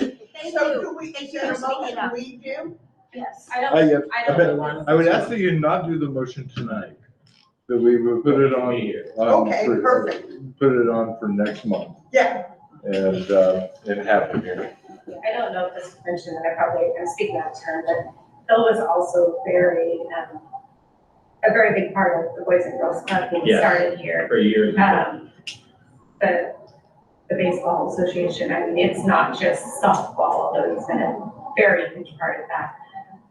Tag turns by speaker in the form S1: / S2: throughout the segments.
S1: they
S2: So
S1: do.
S2: do we, is
S1: They
S2: there a
S1: do speak it
S2: motion
S1: up.
S2: we do?
S1: Yes.
S3: I
S4: I,
S3: don't,
S4: have-
S3: I
S4: I bet,
S3: don't.
S4: I would ask that you not do the motion tonight, that we would put it
S5: Oh,
S4: on. on
S2: Okay,
S4: for-
S2: perfect.
S4: Put it on for next month
S2: Yeah,
S4: and, uh, and have it here.
S3: I don't know if this was mentioned, and I probably, I'm speaking out of turn, but Phil was also very, um, a very big part of the Boys and Girls Club being
S5: Yeah.
S3: started here.
S5: For years.
S3: Um, the, the baseball association, I mean, it's not just softball, although he's been a very huge part of that.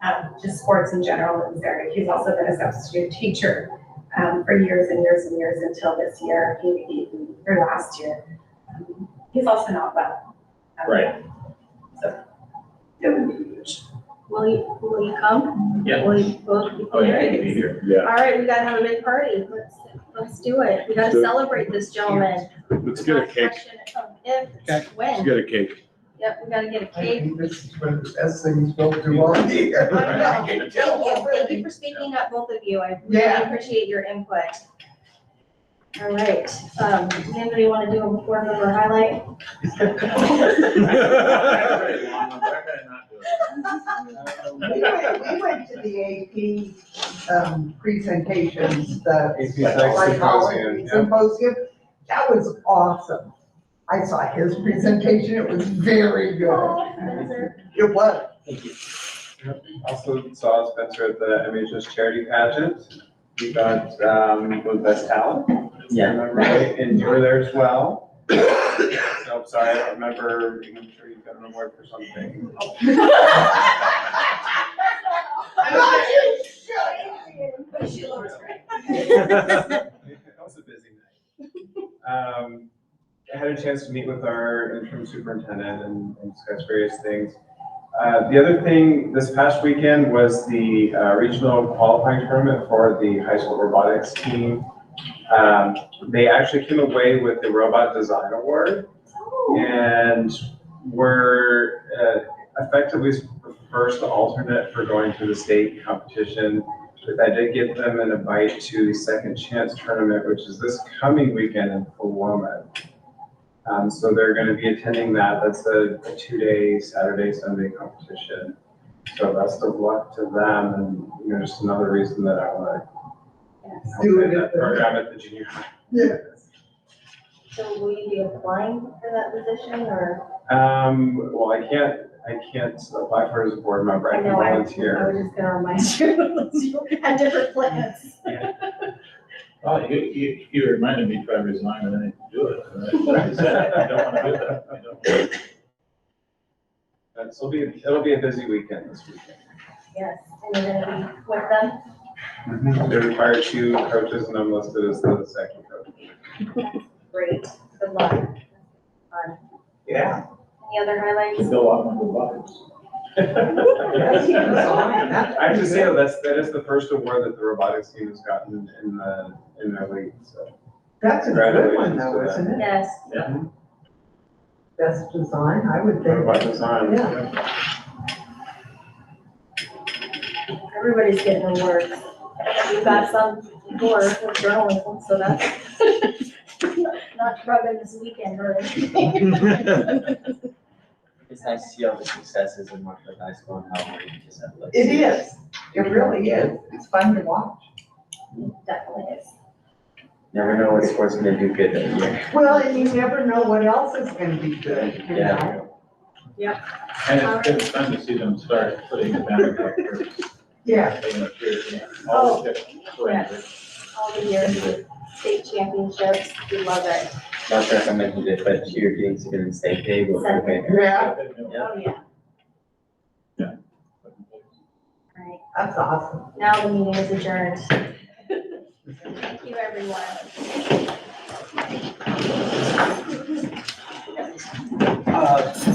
S3: Um, just sports in general is very, he's also been a substitute teacher, um, for years and years and years until this year, he, he, or last year. Um, He's also not well. Um,
S5: Right.
S3: So, it would be huge.
S1: Will you, will you come?
S5: Yeah.
S1: Will you both be
S5: Oh, yeah,
S1: there?
S5: you can be here.
S1: All
S4: Yeah,
S1: right, we gotta have a big party. Let's, let's do it. We gotta
S4: Let's do it.
S1: celebrate this gentleman.
S4: let's get a
S1: Not
S4: cake,
S1: question of If,
S6: Okay.
S1: it's
S4: let's
S1: when.
S4: get a cake.
S1: Yep, we gotta get a
S6: I
S1: cake.
S6: think this is one of the best things we'll do all year.
S2: I
S1: Thank
S2: can
S1: you,
S2: tell
S1: thank you
S2: already.
S1: for speaking up, both of you. I really
S2: Yeah.
S1: appreciate your input. All right, um, anybody wanna do a board member highlight?
S2: We went, we went to the AP, um, presentations, the
S6: If you like
S2: psychology
S6: symposium, yeah.
S2: symposium. That was awesome. I saw his presentation, it was very good. It was.
S7: Also saw Spencer at the MHS charity pageant. You got, um, the best talent. if I
S5: Yeah.
S7: remember Right, and you were there as well. So I'm sorry, I don't remember, I'm sure you got an award for something. That was a busy night. Um, I had a chance to meet with our interim superintendent and and discuss various things. Uh, the other thing, this past weekend was the uh, regional qualifying tournament for the high school robotics team. Um, they actually came away with the robot design award and were uh, effectively the first alternate for going to the state competition. But I did give them an invite to the Second Chance Tournament, which is this coming weekend in Paloma. Um, so they're gonna be attending that. That's a a two-day Saturday, Sunday competition. So best of luck to them and, you know, just another reason that I wanna
S3: Yes.
S7: help
S2: Do it
S7: in
S2: at
S7: that
S2: the-
S7: program at the junior high.
S1: So will you be applying for that position or?
S7: Um, well, I can't, I can't apply for it as a board member. I can
S1: know I-
S7: volunteer.
S1: I was just gonna remind you, you had different plans.
S5: Oh, you, you, you reminded me to try to resign and then I do it. And that's what I said, I don't wanna do that. I don't wanna-
S7: That's, it'll be, it'll be a busy weekend this weekend.
S1: Yes, and you're gonna be with them?
S7: They require two coaches and I'm listed as the second coach.
S1: Great, good luck. Um,
S7: Yeah.
S1: Any other highlights?
S5: To go out on the robots.
S7: I have to say, though, that's, that is the first award that the robotics team has gotten in the, in their league, so.
S2: That's a good one though, isn't it?
S1: Yes,
S2: Best design, I would think.
S7: Robot design.
S2: Yeah.
S1: everybody's getting awards. We've got some for for journalism, so that's not rubbing this weekend or anything.
S8: It's nice to see all the successes in Marshall High School and how we just have like.
S2: It is. It really is. It's fun to watch.
S1: Definitely is.
S8: Never know what sport's gonna do good that year.
S2: Well, and you never know what else is gonna be good, you
S8: Yeah.
S2: know?
S5: And it's, it's fun to see them start putting the banner up for,
S2: Yeah,
S5: you know, for all the different brands.
S1: All the years with state championships, we love it.
S8: Not sure if I mentioned it, but cheerleading's gonna be state big over there.
S2: yeah,
S1: Oh, yeah. All right,
S2: that's awesome.
S1: now the meeting is adjourned. Thank you, everyone.
S8: Uh,